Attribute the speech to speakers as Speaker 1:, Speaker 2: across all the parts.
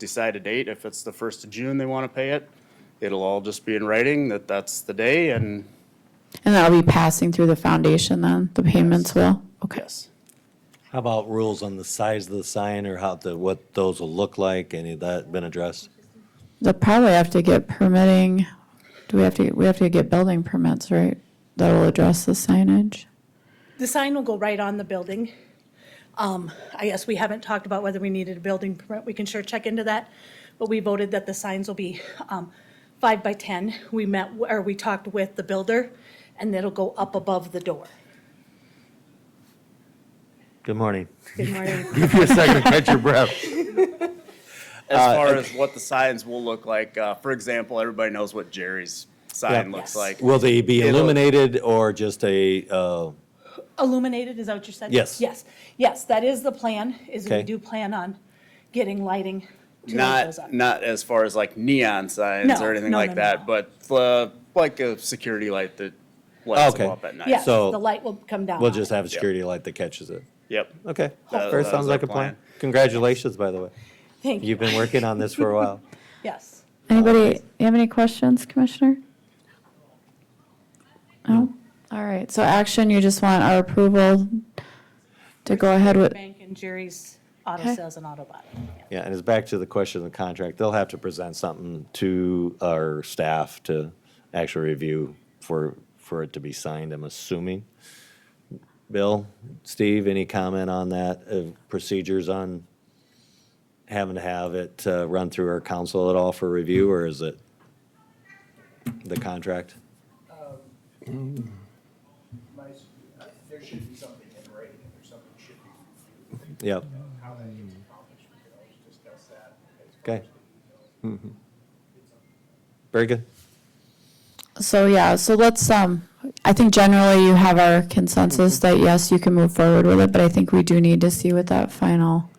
Speaker 1: decide a date. If it's the first of June they want to pay it, it'll all just be in writing that that's the day and
Speaker 2: And that'll be passing through the foundation then, the payments will? Okay.
Speaker 1: yes.
Speaker 3: How about rules on the size of the sign or how the, what those will look like? Any of that been addressed?
Speaker 2: They'll probably have to get permitting, do we have to, we have to get building permits, right? That will address the signage?
Speaker 4: The sign will go right on the building. Um, I guess we haven't talked about whether we needed a building permit. We can sure check into that. But we voted that the signs will be um, five by 10. We met, or we talked with the builder, and it'll go up above the door.
Speaker 3: Good morning.
Speaker 4: Good morning.
Speaker 3: Give you a second, catch your breath. Uh,
Speaker 1: As far as what the signs will look like, uh, for example, everybody knows what Jerry's sign
Speaker 3: Yeah.
Speaker 1: looks like.
Speaker 3: Will they be
Speaker 1: It'll-
Speaker 3: illuminated or just a, uh,
Speaker 4: Illuminated, is that what you said?
Speaker 3: Yes.
Speaker 4: Yes, yes, that is the plan, is we
Speaker 3: Okay.
Speaker 4: do plan on getting lighting to light those up.
Speaker 1: Not, not as far as like neon signs
Speaker 4: No,
Speaker 1: or anything
Speaker 4: no,
Speaker 1: like
Speaker 4: no,
Speaker 1: that,
Speaker 4: no.
Speaker 1: but uh, like a security light that lights them
Speaker 3: Oh, Okay.
Speaker 1: up at night.
Speaker 4: Yes,
Speaker 3: so
Speaker 4: the light will come down.
Speaker 3: we'll
Speaker 4: on
Speaker 3: just
Speaker 4: it.
Speaker 3: have a security light that catches it?
Speaker 1: Yep.
Speaker 3: Okay,
Speaker 1: That-
Speaker 3: fair,
Speaker 1: that was
Speaker 3: sounds like
Speaker 1: our
Speaker 3: a plan.
Speaker 1: plan.
Speaker 3: Congratulations, by the way.
Speaker 4: Thank
Speaker 3: You've
Speaker 4: you,
Speaker 3: been working on this for a while.
Speaker 4: yes.
Speaker 2: Anybody, you have any questions, Commissioner? No? All right, so action, you just want our approval to go ahead with,
Speaker 4: Bank and Jerry's Auto
Speaker 2: Okay.
Speaker 4: Sales and Auto Body. Yeah.
Speaker 3: Yeah, and it's back to the question of the contract. They'll have to present something to our staff to actually review for, for it to be signed, I'm assuming. Bill, Steve, any comment on that, uh, procedures on having to have it uh, run through our council at all for review, or is it the contract?
Speaker 5: Um, my, s- uh, there should be something in writing, and there's something should be. reviewed.
Speaker 3: Yep,
Speaker 5: How that gets accomplished, we can always discuss that. as
Speaker 3: Okay. Mm-hmm.
Speaker 5: much as we know.
Speaker 3: very good.
Speaker 2: so yeah, so let's, um, I think generally you have our consensus that yes, you can move forward with it, but I think we do need to see what that final,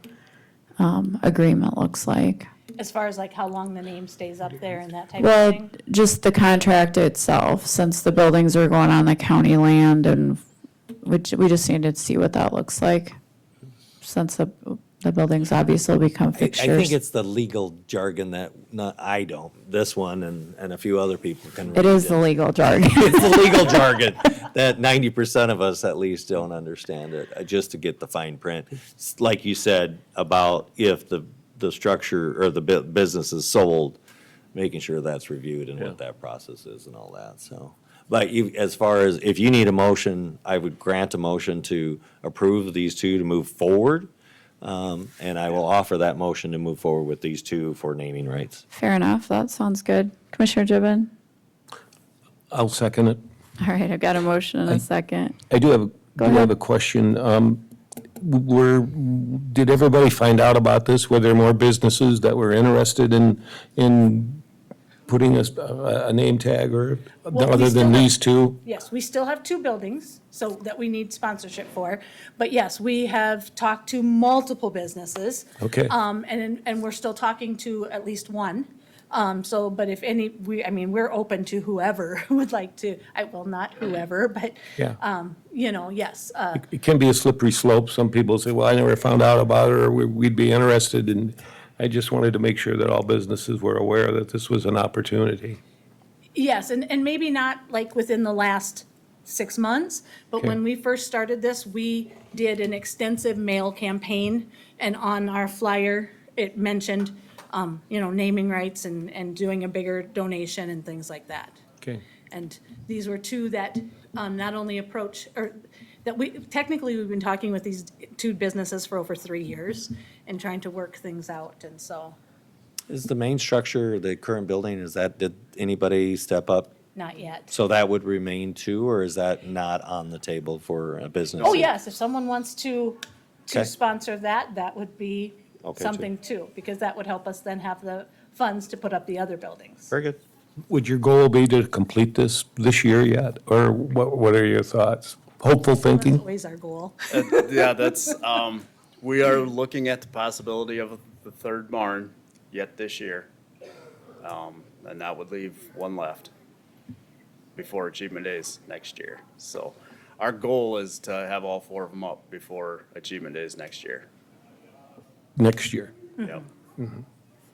Speaker 2: um, agreement looks like.
Speaker 4: As far as like how long the name stays up there and that type of
Speaker 2: Well,
Speaker 4: thing?
Speaker 2: just the contract itself, since the buildings are going on the county land and which, we just need to see what that looks like. Since the, the buildings obviously will become
Speaker 3: I- I think
Speaker 2: fixtures.
Speaker 3: it's the legal jargon that, not, I don't, this one and, and a few other people can.
Speaker 2: It
Speaker 3: read
Speaker 2: is the legal jargon.
Speaker 3: it's the legal jargon that 90% of us at least don't understand it, uh, just to get the fine print. S- Like you said about if the, the structure or the bu- business is sold, making sure that's reviewed and what that process is and all that, so. But you, as far as, if you need a motion, I would grant a motion to approve these two to move forward. Um, And I will offer that motion to move forward with these two for naming rights.
Speaker 2: Fair enough, that sounds good. Commissioner Gibbon?
Speaker 6: I'll second it.
Speaker 2: All right, I've got a motion and a second.
Speaker 6: I do have, a do
Speaker 2: ahead.
Speaker 6: have a question. Um, Were, did everybody find out about this? Were there more businesses that were interested in, in putting us a, a name tag or,
Speaker 4: Well, we
Speaker 6: other
Speaker 4: still
Speaker 6: than
Speaker 4: have-
Speaker 6: these two?
Speaker 4: Yes, we still have two buildings, so that we need sponsorship for. But yes, we have talked to multiple businesses.
Speaker 6: Okay.
Speaker 4: Um, and, and we're still talking to at least one. Um, so, but if any, we, I mean, we're open to whoever would like to, I, well, not whoever, but,
Speaker 6: Yeah.
Speaker 4: um, you know, yes, uh,
Speaker 6: It can be a slippery slope. Some people say, well, I never found out about it, or "We- we'd be interested. And I just wanted to make sure that all businesses were aware that this was an opportunity.
Speaker 4: Yes, and, and maybe not like within the last six months, but when we first started this, we did an extensive mail campaign. And on our flyer, it mentioned, um, you know, naming rights and, and doing a bigger donation and things like that.
Speaker 6: Okay.
Speaker 4: And these were two that um, not only approach, or that we, technically, we've been talking with these two businesses for over three years and trying to work things out, and so,
Speaker 3: Is the main structure, the current building, is that, did anybody step up?
Speaker 4: not yet.
Speaker 3: So that would remain too, or is that not on the table for a business?
Speaker 4: Oh, yes, if someone wants to, to
Speaker 3: Okay.
Speaker 4: sponsor that, that would be
Speaker 3: Okay, too.
Speaker 4: something too, because that would help us then have the funds to put up the other buildings.
Speaker 3: Very good.
Speaker 6: Would your goal be to complete this this year yet, or what, what are your thoughts? Hopeful
Speaker 4: That's
Speaker 6: thinking?
Speaker 4: always our goal.
Speaker 1: yeah, that's, um, we are looking at the possibility of the third barn yet this year. Um, and that would leave one left before Achievement Days next year. So our goal is to have all four of them up before Achievement Days next year.
Speaker 6: Next year.
Speaker 1: Yep.